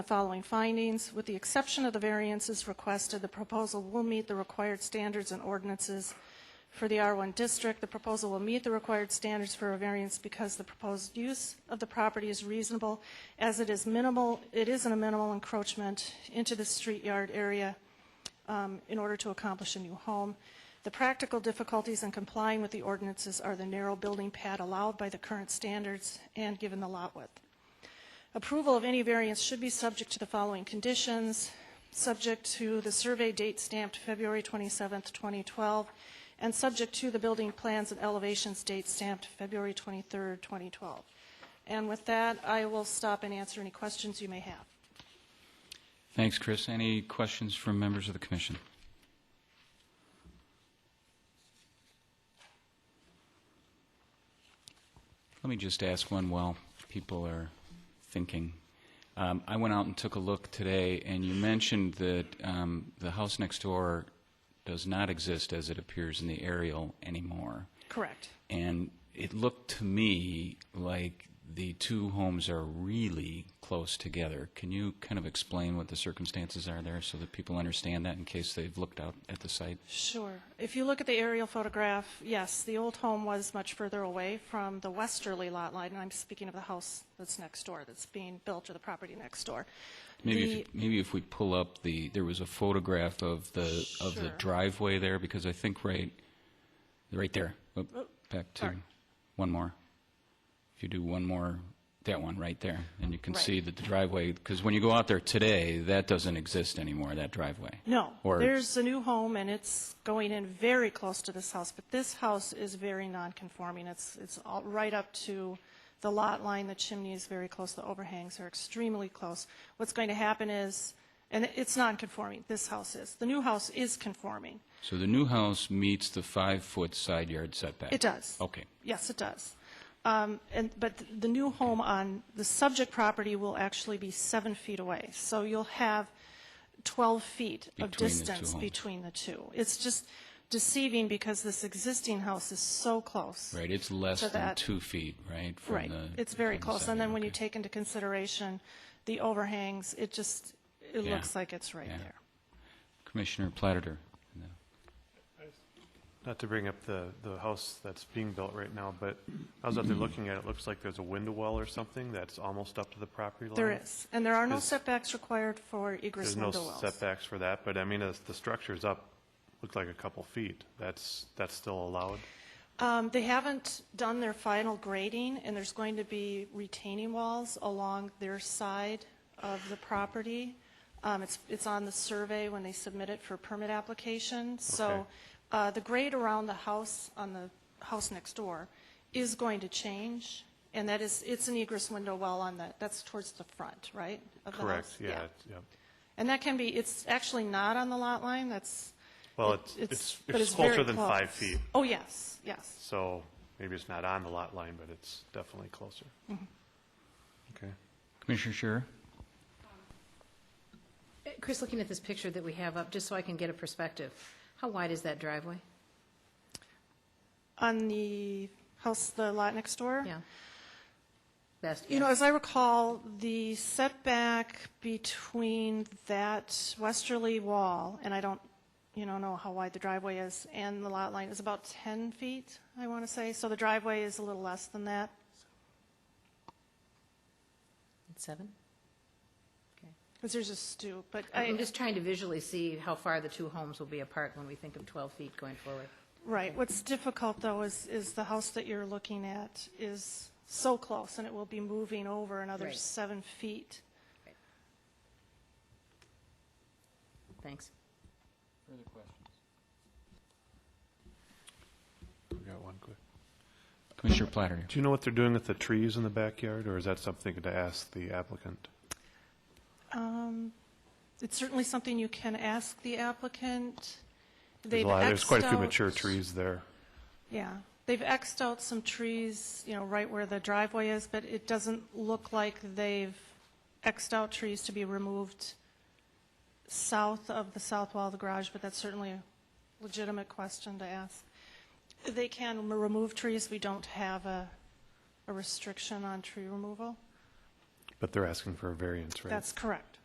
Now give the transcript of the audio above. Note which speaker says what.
Speaker 1: the following findings. With the exception of the variances requested, the proposal will meet the required standards and ordinances for the R1 district. The proposal will meet the required standards for a variance because the proposed use of the property is reasonable, as it is minimal, it isn't a minimal encroachment into the street yard area um, in order to accomplish a new home. The practical difficulties in complying with the ordinances are the narrow building pad allowed by the current standards and given the lot width. Approval of any variance should be subject to the following conditions, subject to the survey date stamped February 27, 2012, and subject to the building plans and elevations date stamped February 23, 2012. And with that, I will stop and answer any questions you may have.
Speaker 2: Thanks, Chris. Any questions from members of the commission? Let me just ask one while people are thinking. Um, I went out and took a look today, and you mentioned that um, the house next door does not exist as it appears in the aerial anymore.
Speaker 1: Correct.
Speaker 2: And it looked to me like the two homes are really close together. Can you kind of explain what the circumstances are there so that people understand that in case they've looked out at the site?
Speaker 1: Sure. If you look at the aerial photograph, yes, the old home was much further away from the westerly lot line, and I'm speaking of the house that's next door, that's being built, or the property next door.
Speaker 2: Maybe
Speaker 1: The-
Speaker 2: if, maybe if we pull up the there was a photograph of the of the
Speaker 1: Sure.
Speaker 2: driveway there because I think right right there. Oh, back to
Speaker 1: sorry.
Speaker 2: one more. If you do one more that one right there and you can
Speaker 1: Right.
Speaker 2: see that the driveway because when you go out there today that doesn't exist anymore that driveway.
Speaker 1: No,
Speaker 2: Or
Speaker 1: there's a new home, and it's going in very close to this house, but this house is very non-conforming. It's, it's all right up to the lot line, the chimney is very close, the overhangs are extremely close. What's going to happen is, and it's non-conforming, this house is. The new house is conforming.
Speaker 2: So the new house meets the five-foot side yard setback?
Speaker 1: It does.
Speaker 2: Okay.
Speaker 1: Yes, it does. Um, And, but the new home on the subject property will actually be seven feet away. So you'll have 12 feet
Speaker 2: Between
Speaker 1: of
Speaker 2: the two
Speaker 1: distance
Speaker 2: homes.
Speaker 1: between the two. It's just deceiving because this existing house is so close.
Speaker 2: Right, it's less
Speaker 1: So
Speaker 2: than
Speaker 1: that-
Speaker 2: two feet, right? from
Speaker 1: Right.
Speaker 2: the-
Speaker 1: It's very
Speaker 2: from the
Speaker 1: close.
Speaker 2: side
Speaker 1: And then
Speaker 2: yard,
Speaker 1: when you
Speaker 2: okay.
Speaker 1: take into consideration the overhangs, it just, it
Speaker 2: Yeah.
Speaker 1: looks like it's right
Speaker 2: Yeah.
Speaker 1: there.
Speaker 2: Commissioner Platter. and then-
Speaker 3: Not to bring up the, the house that's being built right now, but I was out
Speaker 1: Mm-hmm.
Speaker 3: there looking at it, it looks like there's a window well or something that's almost up to the property line.
Speaker 1: There is. And there are no
Speaker 3: Is-
Speaker 1: setbacks required for egress
Speaker 3: There's no
Speaker 1: window wells.
Speaker 3: setbacks for that, but I mean, as the structure's up, looked like a couple feet. That's, that's still allowed?
Speaker 1: Um, They haven't done their final grading, and there's going to be retaining walls along their side of the property. Um, It's, it's on the survey when they submit it for permit application. So
Speaker 3: Okay.
Speaker 1: uh, the grade around the house, on the house next door, is going to change, and that is, it's an egress window well on the, that's towards the front, right? of the
Speaker 3: Correct,
Speaker 1: house?
Speaker 3: yeah, it's- yeah.
Speaker 1: And that can be, it's actually not on the lot line, that's.
Speaker 3: Well,
Speaker 1: it-
Speaker 3: it's, it's,
Speaker 1: but
Speaker 3: it's
Speaker 1: very
Speaker 3: closer than five
Speaker 1: close.
Speaker 3: feet,
Speaker 1: Oh, yes, yes.
Speaker 3: so maybe it's not on the lot line, but it's definitely closer. Okay.
Speaker 2: Commissioner Scherer?
Speaker 4: Chris, looking at this picture that we have up, just so I can get a perspective, how wide is that driveway?
Speaker 1: On the house, the lot next door?
Speaker 4: Yeah. Best
Speaker 1: You know,
Speaker 4: guess.
Speaker 1: as I recall, the setback between that westerly wall, and I don't, you know, know how wide the driveway is, and the lot line is about 10 feet, I want to say. So the driveway is a little less than that.
Speaker 4: Seven? Okay.
Speaker 1: Because there's a stoop, but
Speaker 4: I'm
Speaker 1: I,
Speaker 4: just trying to visually see how far the two homes will be apart when we think of 12 feet going forward.
Speaker 1: right. What's difficult, though, is, is the house that you're looking at is so close, and it will be moving over another
Speaker 4: Right.
Speaker 1: seven feet.
Speaker 4: Thanks.
Speaker 2: Further questions?
Speaker 3: We got one quick.
Speaker 2: Commissioner Platter.
Speaker 3: Do you know what they're doing with the trees in the backyard, or is that something to ask the applicant?
Speaker 1: Um, It's certainly something you can ask the applicant.
Speaker 3: There's
Speaker 1: They've
Speaker 3: a lot, there's quite a few
Speaker 1: Xed out-
Speaker 3: mature trees there.
Speaker 1: Yeah, they've Xed out some trees, you know, right where the driveway is, but it doesn't look like they've Xed out trees to be removed south of the south wall of the garage, but that's certainly a legitimate question to ask. They can m- remove trees, we don't have a, a restriction on tree removal.
Speaker 5: But they're asking for a variance, right?
Speaker 3: That's correct.